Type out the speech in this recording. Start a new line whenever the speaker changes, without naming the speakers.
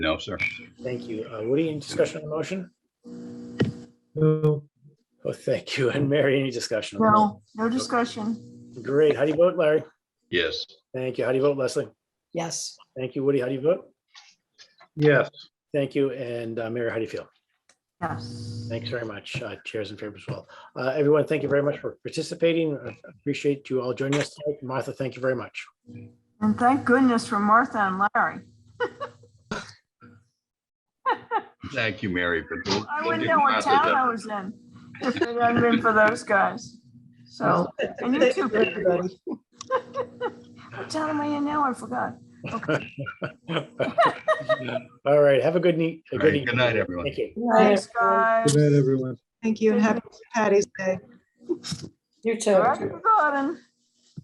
No, sir.
Thank you. Uh, Woody, any discussion on the motion?
No,
Oh, thank you. And Mary, any discussion? on the motion?
No, no discussion.
Great. How do you vote, Larry?
Yes.
Thank you. How do you vote, Leslie?
Yes.
Thank you, Woody. How do you vote?
yes,
Thank you. And uh, Mary, how do you feel?
Yes.
Thanks very much. Uh, Chairs in favor as well. Uh, Everyone, thank you very much for participating. I Appreciate you all joining us. tonight. Martha, thank you very much.
And thank goodness for Martha and Larry.
Thank you, Mary. for doing-
I wouldn't know what town I was in if it hadn't been for those guys. So, and you too, Peter. What town am I in now? I forgot.
All right. Have a good night.
All right, Good night, everyone.
Thank you.
Thanks, guys.
good night, everyone.
Thank you and happy Patty's Day.
You too.
Happy garden.